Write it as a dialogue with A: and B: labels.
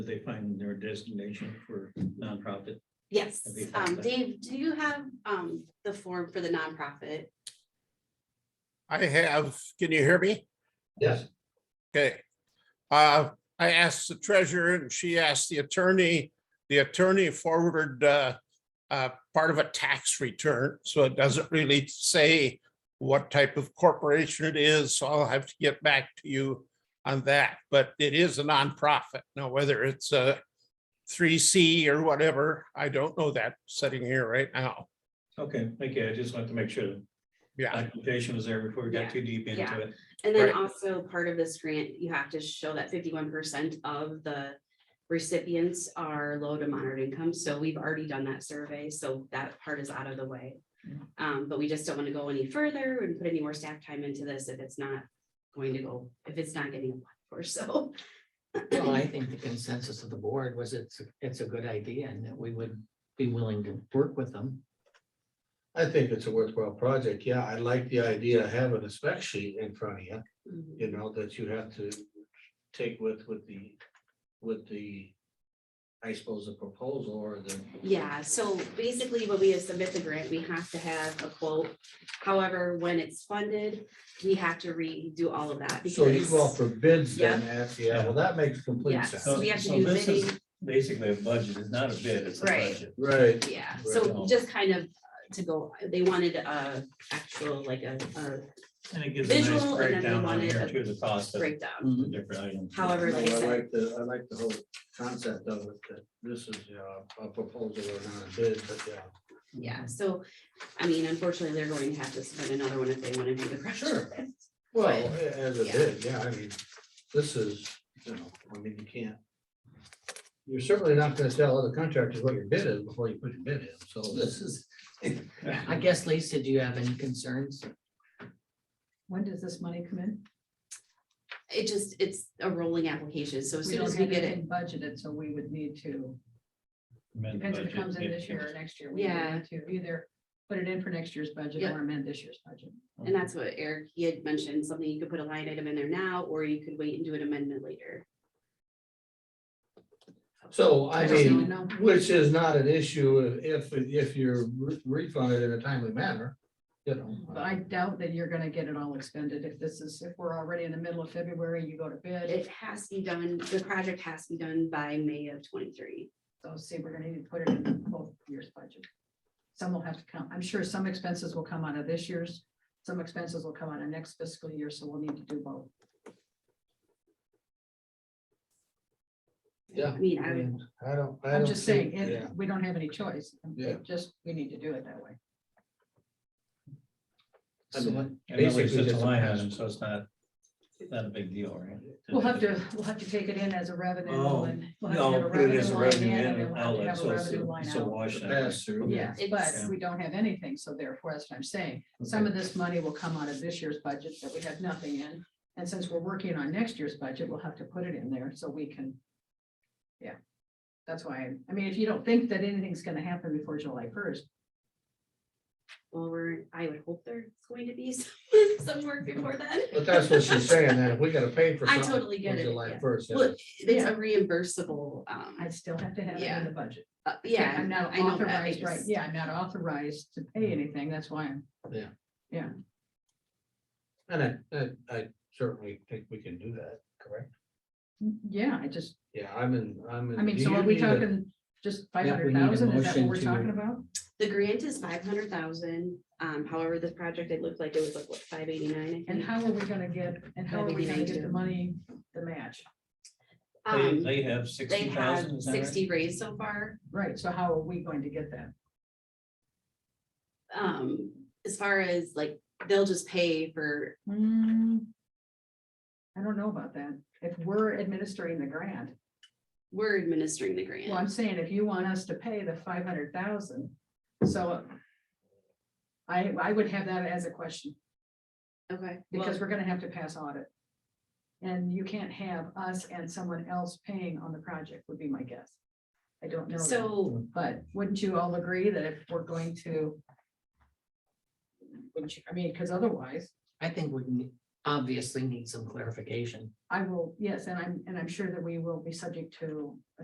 A: that they find their designation for nonprofit.
B: Yes,
A: That'd be
B: um,
A: fantastic.
B: Dave, do you have, um, the form for the nonprofit?
C: I have, can you hear me?
A: Yes.
C: Okay. Uh, I asked the treasurer and she asked the attorney. The attorney forwarded uh, uh, part of a tax return, so it doesn't really say what type of corporation it is, so I'll have to get back to you on that, but it is a nonprofit. Now, whether it's a three C or whatever, I don't know that sitting here right now.
A: Okay, thank you. I just wanted to make sure the
C: Yeah,
A: documentation was there before we
B: Yeah,
A: got too deep
B: yeah.
A: into it.
B: And then
C: Right.
B: also part of this grant, you have to show that fifty-one percent of the recipients are low to moderate income, so we've already done that survey, so that part is out of the way.
A: Yeah.
B: Um, but we just don't want to go any further and put any more staff time into this if it's not going to go, if it's not getting applied for, so.
D: Well, I think the consensus of the board was it's, it's a good idea and that we would be willing to work with them.
E: I think it's a worthwhile project. Yeah, I like the idea of having a spec sheet in front of you,
B: Mhm.
E: you know, that you have to take with, with the, with the, I suppose, the proposal or the.
B: Yeah, so basically when we submit the grant, we have to have a quote. However, when it's funded, we have to redo all of that.
E: So you
B: because-
E: go out for bids then, at- yeah, well, that makes complete
B: Yes.
E: sense.
A: So
B: we have to
A: so
B: do
A: this is
B: bidding.
A: Basically, a budget It's not a bid, it's a
B: Right.
A: budget.
E: Right,
B: Yeah,
E: Right.
B: so just kind of uh, to go, they wanted a actual, like a, a
A: And it gives a
B: Visual, and
A: nice
B: then
A: breakdown
B: we
A: on
B: wanted
A: here
B: a
A: too, the cost of
B: breakdown.
A: the different items.
E: No, I
B: However, like I said,
E: like the, I like the whole concept of it, that this is, you know, a proposal or not a bid, but yeah.
B: yeah, so, I mean, unfortunately, they're going to have to spend another one if they want to do the pressure.
E: Well, a- as a
B: yeah.
E: bid, yeah, I mean, this is, you know, I mean, you can't. You're certainly not gonna tell other contractors what your bid is before you put your bid in, so this,
D: This is, I guess, Lisa, do you have any concerns?
F: When does this money come in?
B: It just, it's a rolling application, so as
F: We
B: soon
F: don't
B: as we
F: have
B: get it,
F: anything Budgeted, so we would need to,
A: Amend the
F: depends if it
A: budget,
F: comes in
A: if
F: this year or
A: it's-
F: next year. we would
B: Yeah.
F: need To either put it in for next year's budget
B: Yep.
F: or amend this year's budget.
B: and that's what Eric, he had mentioned, something you could put a line item in there now, or you could wait and do an amendment later.
E: so I
F: just need
E: mean,
F: to know.
E: which is not an issue if, if you're re- refunded in a timely manner, you know. uh,
F: But I doubt that you're gonna get it all expended. If this is, if we're already in the middle of February, you go to bid.
B: It has to be done, the project has to be done by May of twenty-three.
F: So see, we're gonna need to put it in both years' budget. Some will have to come, I'm sure some expenses will come out of this year's, some expenses will come out of next fiscal year, so we'll need to do both.
E: Yeah.
B: I mean, I would
E: I don't. I
F: I'm
E: don't
F: just
E: think-
F: saying, it- we don't have any choice.
E: Yeah.
F: Just, we need to do it that way.
E: I
D: So
E: mean,
A: And that way it's
E: Basically
A: just a
E: just a
A: line
E: pass.
A: item, so it's not, not a big deal, right?
F: We'll have to, we'll have to take it in as a revenue
A: Oh,
F: and. we'll have to have
A: No,
F: a
A: put it as a
F: line
A: revenue
F: in and
A: in-
F: we'll have to
A: outlet,
F: have a
A: so it's
F: revenue
A: a-
F: line
A: it's a
F: out.
A: wash.
E: the
A: that way.
E: Pass through.
F: Yes,
B: It's-
F: but we don't have anything, so therefore, that's what I'm saying. Some of this money will come out of this year's budget that we have nothing in. And since we're working on next year's budget, we'll have to put it in there so we can. Yeah, that's why, I mean, if you don't think that anything's gonna happen before July first,
B: Well, we're, I would hope there's going to be some, some work before then.
E: But that's what she's saying, that if we gotta pay for
B: I
E: something.
B: totally get
E: on
B: it,
E: July
B: yeah.
E: first.
B: Well, It's a reimbursable, um,
F: I'd still have to have it
B: Yeah.
F: in the budget.
B: uh, yeah.
F: I'm not
B: I know that, I
F: authorized, right,
B: just-
F: yeah, I'm not authorized to pay anything, that's why I'm.
E: And I, and I certainly think we can do that, correct?
F: Yeah, I just,
E: Yeah, I'm in, I'm in.
F: I mean,
E: do
F: so
E: you
F: are we
E: need a-
F: talking just five
D: Yeah, we
F: hundred
D: need a
F: thousand? Is that what
D: motion
F: we're
D: to-
F: talking about?
B: The grant is five hundred thousand, um, however, this project, it looked like it was like, what, five eighty-nine?
F: And how are we gonna get, and how are we gonna get the money, the match?
A: They,
B: Um,
A: they have
B: they
A: sixty
B: have
A: thousand, is that right?
B: sixty raised so far,
F: Right, so how are we going to get that?
B: um, as far as like, they'll just pay for,
F: Hmm, I don't know about that. If we're administering the grant,
B: we're administering the
F: well, I'm
B: grant.
F: saying if you want us to pay the five hundred thousand, so I, I would have that as a question.
B: Okay.
F: because
B: well,
F: we're gonna have to pass audit. And you can't have us and someone else paying on the project would be my guess. I don't know. that,
B: So,
F: But wouldn't you all agree that if we're going to? Wouldn't you, I mean, because otherwise,
D: I think we, need- obviously need some clarification.
F: I will, yes, and I'm, and I'm sure that we will be subject to